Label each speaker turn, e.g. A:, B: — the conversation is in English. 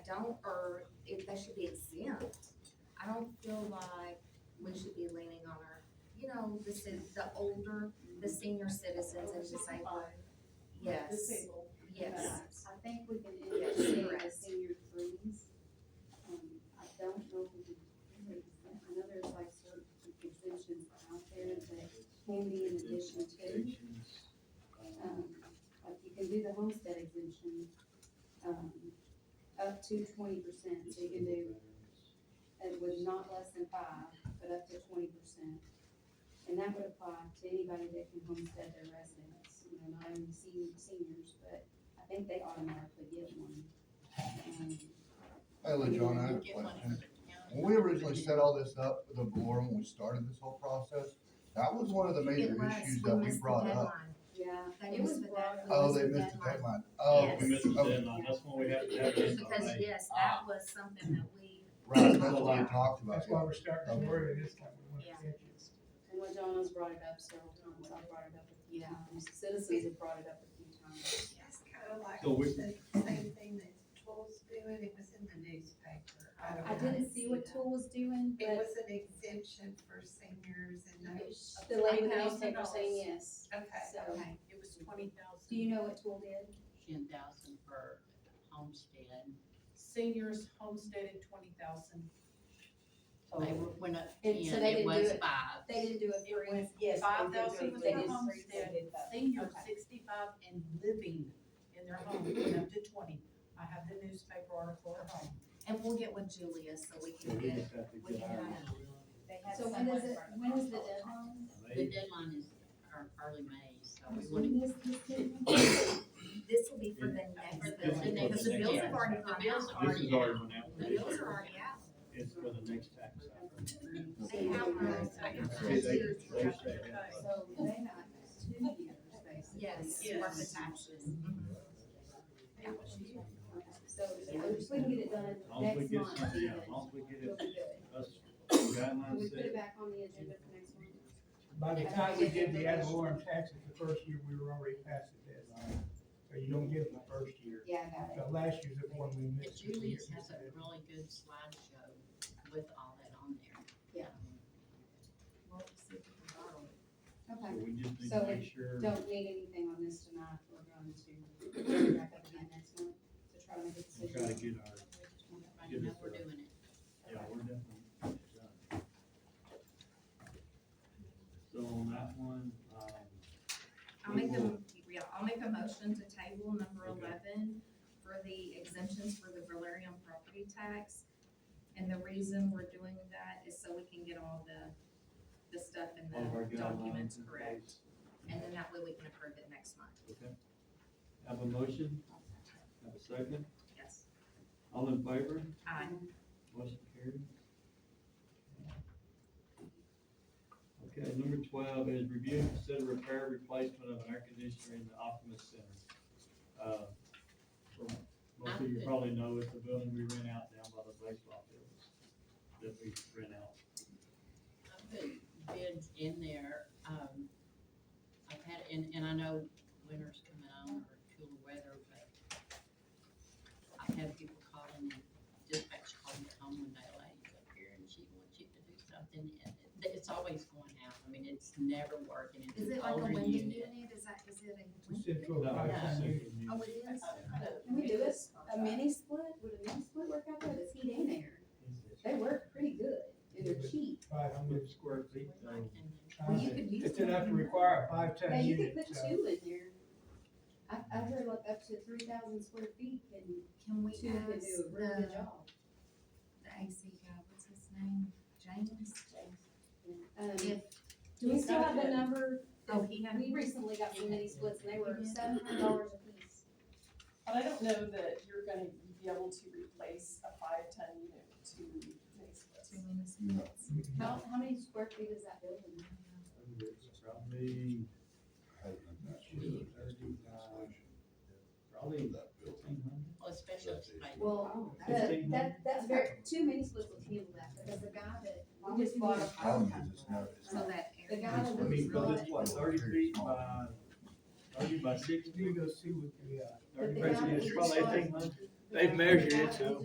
A: don't, or if that should be exempt. I don't feel like we should be leaning on our, you know, the ci- the older, the senior citizens and just say, well, yes,
B: Disabled.
A: yes.
C: I think we can end up seeing the senior threes. Um, I don't know, if we can do that. I know there's like certain exemptions out there that can be in addition to. Um, like you can do the homestead exemption, um, up to twenty percent, so you can do it was not less than five, but up to twenty percent. And that would apply to anybody that can homestead their residence, you know, not only senior, seniors, but I think they automatically get one. Um,
D: Hello, John, I have a
B: Get money from
D: question.
B: the county.
D: When we originally set all this up, with the board, when we started this whole process, that was one of the major
A: It was,
D: issues
A: we
D: that we
A: missed the
D: brought up.
A: deadline.
C: Yeah,
A: They
C: It
A: missed
C: was
A: the
C: brought
A: deadline.
C: up.
D: Oh,
A: We
D: they
A: missed the
D: missed the
A: deadline.
D: deadline. Oh,
A: Yes.
E: We missed the
D: okay.
E: deadline, that's when we have to have this on
A: Because,
E: May.
A: yes, that was something that we,
D: Right, that's what we talked about.
F: That's why we're starting to worry this time, we want
A: Yeah.
F: to catch it.
C: and what John has brought it up several times, I brought it up a few times, citizens have brought it up a few times.
G: It's kind of like
E: So we-
G: the same thing that Tool's doing, it was in the newspaper. don't
C: I
G: know.
C: didn't see what Tool was doing,
G: It
C: but
G: was an exemption for seniors and those,
C: the lady in the
B: $1,000.
C: newspaper saying yes,
G: okay.
C: so,
A: okay,
B: It was twenty thousand.
C: do you know what Tool did?
H: ten thousand for homestead.
B: Seniors homesteaded twenty thousand.
H: They were, went up ten,
C: And so they
H: it
C: didn't do
H: was
C: it-
H: five.
C: They didn't do a
B: It
C: free,
B: went five thousand
C: They
B: for
C: did
B: homestead, senior sixty-five and living in their home, went up to twenty. I have the newspaper article at home.
A: and we'll get with Julia so we
E: So
A: can
E: we
A: get,
E: just have to
A: we
E: get
A: can
E: our,
A: have
C: so when is it, when is the deadline?
H: The
E: May,
H: deadline is ear- early May, so we
C: When
H: want
C: is this deadline?
A: This will be for the next
H: For the
A: building, because the
E: next
A: bills
E: year.
A: have already
H: The
A: gone
H: bills
A: out.
H: are-
E: this is already went out.
A: The bills are already out.
E: It's for the next tax cycle.
H: to.
A: They have one. I got
E: They-
A: two
E: they-
A: years
E: they
A: worth
E: say that.
C: So they got two years, basically.
A: Yes,
B: Yes.
A: worth of taxes.
C: So if we can get it done
E: As long as we
C: next
E: get
C: month,
E: something
C: even,
E: out, as long as we get
C: we'll
E: it,
C: be good.
E: us
C: Can we
E: guidelines
C: put it
E: set,
C: back on the agenda for next month?
F: By the time we did the ad valorem taxes, the first year, we were already past the deadline, so you don't get it the first year.
C: Yeah, I got it.
F: The last year's the one we
H: But
F: missed.
H: Julius has a really good slideshow with all that on there. Um,
C: Okay,
E: we just need
C: So
E: to
C: we
E: make sure.
C: don't need anything on this tonight, we're going to bring it back up again next month to try to make a
E: We try to
C: decision.
E: get our,
H: Everybody know we're doing it.
E: yeah, we're definitely done. So on that one, um,
A: I'll make a, yeah, I'll make a motion to table number
E: Okay.
A: eleven for the exemptions for the Valerian property tax. And the reason we're doing that is so we can get all the, the stuff in
E: all of our
A: the documents
E: guidelines in
A: correct.
E: place.
A: And then that way we can approve it next month,
E: Okay. Have a motion, have a second,
A: yes. Uh,
E: all in favor?
A: Aye.
E: Motion carried. Okay, number twelve is review and consider repair replacement of an air conditioner in the Optimus Center. Uh, for- Most of you probably know it's the building we rent out down by the baseball fields that we rent out.
H: I put bids in there, um, I've had, and, and I know winter's coming on or cooler weather, but I've had people calling, dispatch calling at home one day late up here and she wants you to do something. and it- It's always going out, I mean, it's never working, it's
A: Is
H: an
A: it like a
H: older
A: window
H: unit.
A: unit, is that, is it a?
F: It's just for a
E: No,
F: five
E: it's
F: cent
E: a
F: unit.
E: second unit.
A: Oh, it is?
C: Can we do this, a mini split, would a mini split work out there, the heat in there? They work pretty good, and they're cheap.
F: Five hundred.
E: Hundred square feet,
H: Like,
E: though.
H: and
A: Well, you could use
F: It's enough to
A: one.
F: require a five
C: Yeah,
F: ton
C: you could
F: unit,
C: put
F: so.
C: two in there. I, I heard like up to three thousand square feet can,
A: Can we
C: two can
A: ask
C: do a really good
A: the,
C: job.
A: the AC guy, what's his name, James?
C: Um,
A: If-
C: do we still have the number?
A: Oh, he had.
C: We recently got some mini splits and they were
A: Yeah.
C: seven hundred dollars a piece.
I: But I don't know that you're gonna be able to replace a five-ton unit with two mixed
A: Two
I: splits.
A: municipalities.
C: How, how many square feet is that building?
E: Probably, probably eighteen hundred.
H: Well, especially if somebody
C: Well,
A: Oh,
E: that's-
C: that, that, that's very, two mini splits will handle that, because the guy that, we just bought a.
D: Problem is, it's not- it's
A: So
D: not-
A: that
C: The
A: area.
C: guy that
E: I
C: was
E: mean,
C: bought,
E: because it's what, thirty feet by, thirty by sixty?
F: You go see what the, uh,
C: But
E: Thirty
C: they
E: by
C: got
E: sixty,
C: each
E: probably
C: one.
E: eighteen hundred.
C: They've measured it, so.